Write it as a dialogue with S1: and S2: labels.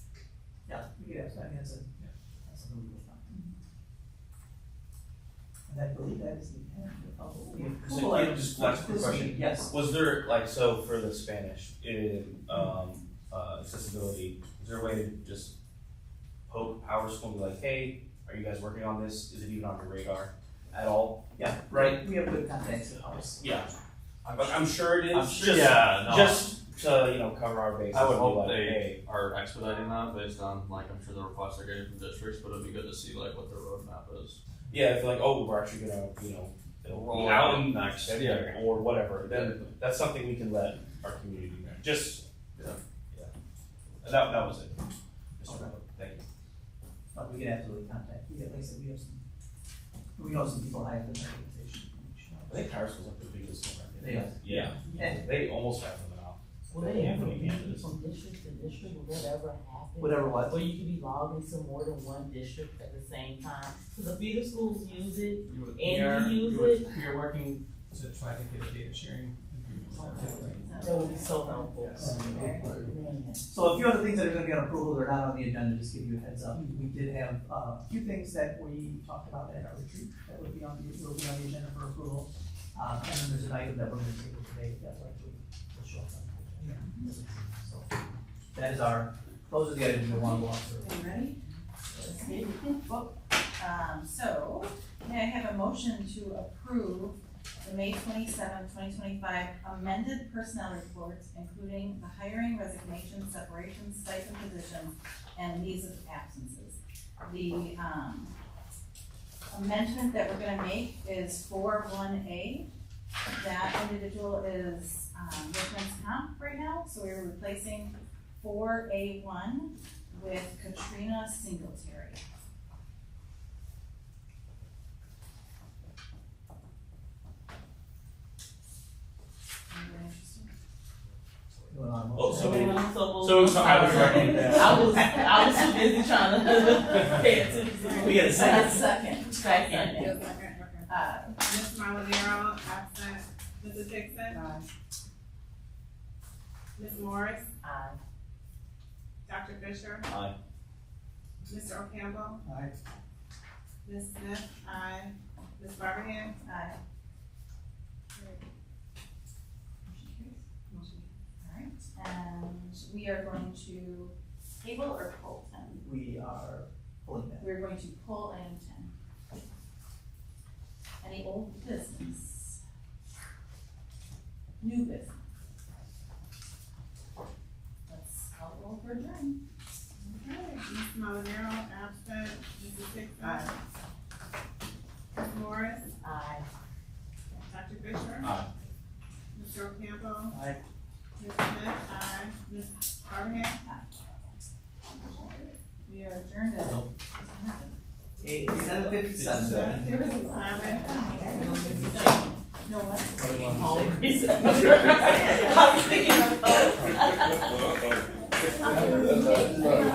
S1: Yeah, yes, I mean, that's a, that's a legal fine. And I believe that is the end of.
S2: So, yeah, just one quick question.
S1: Yes,
S2: Was there like so for the Spanish in um, uh, accessibility? Is there a way to just poke Power School and be like, hey, are you guys working on this? Is it even on your radar at all? Yeah. Right.
S1: we have good contacts in ours.
S2: Yeah. I'm, I'm sure it is.
S3: I'm sure-
S2: just,
S3: yeah, no.
S2: just to you know cover our bases.
S3: I would
S2: and be
S3: hope
S2: like,
S3: they
S2: hey,
S3: are expediting that based on like I'm sure the requests they're getting from districts, but it'd be good to see like what their roadmap is.
S2: Yeah, if like oh we're actually gonna you know it'll
S3: Roll
S2: be out
S3: out
S2: in
S3: next
S2: February or whatever, then
S3: Definitely.
S2: that's something we can let our community know. Just
S3: Yeah.
S2: yeah. That that was it. Mr.
S1: Okay.
S2: Miller. Thank you.
S1: But we can absolutely contact, we, like I said, we have some, we know some people higher than that organization. we should
S2: I
S1: know.
S2: think Power School's up to the biggest one. right?
S1: They are.
S2: Yeah.
S1: And
S2: They almost have them now.
S4: Will they ever be from district to district, will that ever happen?
S1: whatever
S4: Where
S1: what,
S4: you could be logged into more than one district at the same time, because a few of the schools use it,
S5: You would-
S4: And
S5: we are-
S4: we use
S5: you would- We are working to try to get data sharing.
S4: that would be so helpful.
S5: Yes.
S1: so a few other things that are gonna be on approval or not on the agenda, just give you a heads up. We did have, uh, a few things that we talked about at our retreat that would be on the, will be on the agenda for approval. Uh, and then there's an item that we're gonna table today, that's actually, will show up. on the agenda. So, That is our, those are the items we want to walk through.
S6: Are you ready? Let's see. Well, Um, so, may I have a motion to approve the May 27, 2025 amended personnel reports, including the hiring, resignation, separation, stipend positions, and leaves of absences. The, um, amendment that we're gonna make is four one A. That individual is, um, workman's comp right now, so we're replacing four A one with Katrina Singletary. Anybody interested?
S1: Going on.
S2: Oh, so we-
S4: I'm so-
S2: so- so I would recommend that.
S4: I was, I was too busy trying to pay attention.
S1: We got a
S6: Uh,
S1: second.
S6: Second.
S4: Second.
S6: Uh,
S7: Ms. Malavero, absent. Mrs. Dixon?
S6: uh,
S7: Ms. Morris?
S6: Uh,
S4: Aye.
S7: Dr. Fisher?
S2: Aye.
S7: Mr. O'Campbell?
S1: Aye.
S7: Ms. Smith? Aye. Ms. Barberhand?
S6: Aye. Motion carries. All right, and we are going to table or pull ten?
S1: We are pulling that.
S6: We're going to pull item ten. Any old business? New business? Let's call roll for adjourn.
S7: Okay. Ms. Malavero, absent. Mrs. Dixon?
S6: Aye.
S7: Ms. Morris?
S4: Aye.
S7: Dr. Fisher?
S2: Aye.
S7: Mr. O'Campbell?
S1: Aye.
S7: Ms. Smith? Aye. Ms. Barberhand?
S6: We are adjourned at.
S1: Eight, seven fifty-seven.
S7: There was a
S6: No, what?
S4: Hungry. I was thinking of.